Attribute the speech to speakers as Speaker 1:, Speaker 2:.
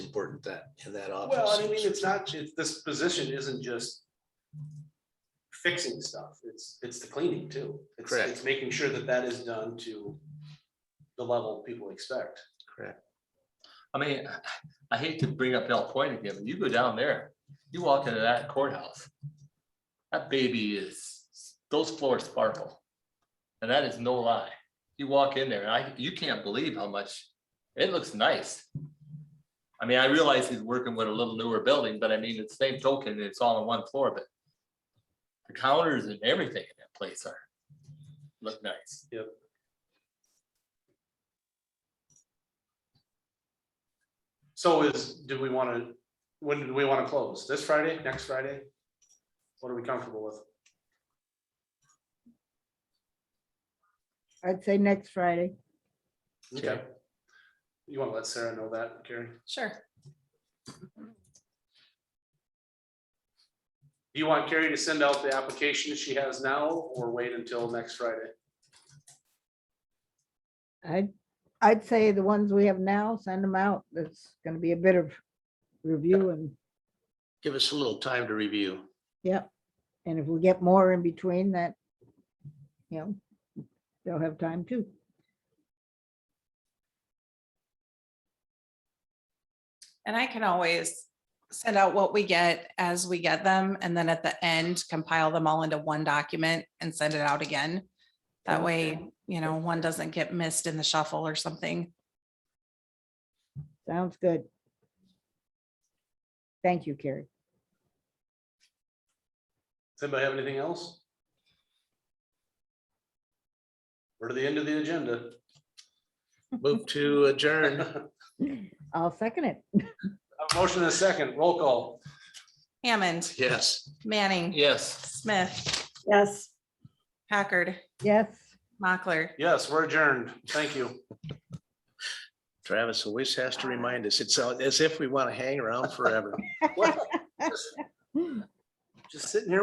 Speaker 1: important that, in that office.
Speaker 2: Well, I mean, it's not, it's, this position isn't just fixing stuff, it's, it's the cleaning too. It's-
Speaker 1: Correct.
Speaker 2: It's making sure that that is done to the level people expect.
Speaker 3: I mean, I hate to bring up El Point again, but you go down there, you walk into that courthouse. That baby is, those floors sparkle. And that is no lie. You walk in there and I, you can't believe how much, it looks nice. I mean, I realize he's working with a little newer building, but I mean, it's same token, it's all on one floor, but the counters and everything in that place are, look nice.
Speaker 2: So is, do we want to, when do we want to close? This Friday, next Friday? What are we comfortable with?
Speaker 4: I'd say next Friday.
Speaker 2: Okay. You want to let Sarah know that, Carrie?
Speaker 5: Sure.
Speaker 2: Do you want Carrie to send out the application she has now or wait until next Friday?
Speaker 4: I'd, I'd say the ones we have now, send them out. That's gonna be a bit of review and,
Speaker 1: Give us a little time to review.
Speaker 4: yep. And if we get more in between that, you know, they'll have time too.
Speaker 5: And I can always send out what we get as we get them and then at the end compile them all into one document and send it out again. That way, you know, one doesn't get missed in the shuffle or something.
Speaker 4: Sounds good. Thank you, Carrie.
Speaker 2: Does anybody have anything else? We're to the end of the agenda.
Speaker 1: Move to adjourn.
Speaker 2: A
Speaker 4: I'll second it.
Speaker 2: motion and a second, roll call.
Speaker 5: Hammond,
Speaker 1: Yes.
Speaker 5: Manning,
Speaker 3: Yes.
Speaker 5: Smith,
Speaker 4: Yes.
Speaker 5: Packard,
Speaker 4: Yes.
Speaker 5: Mockler.
Speaker 2: Yes, we're adjourned. Thank you.
Speaker 1: Travis always has to remind us. It's uh, as if we want to hang around forever.
Speaker 2: What? Just sitting here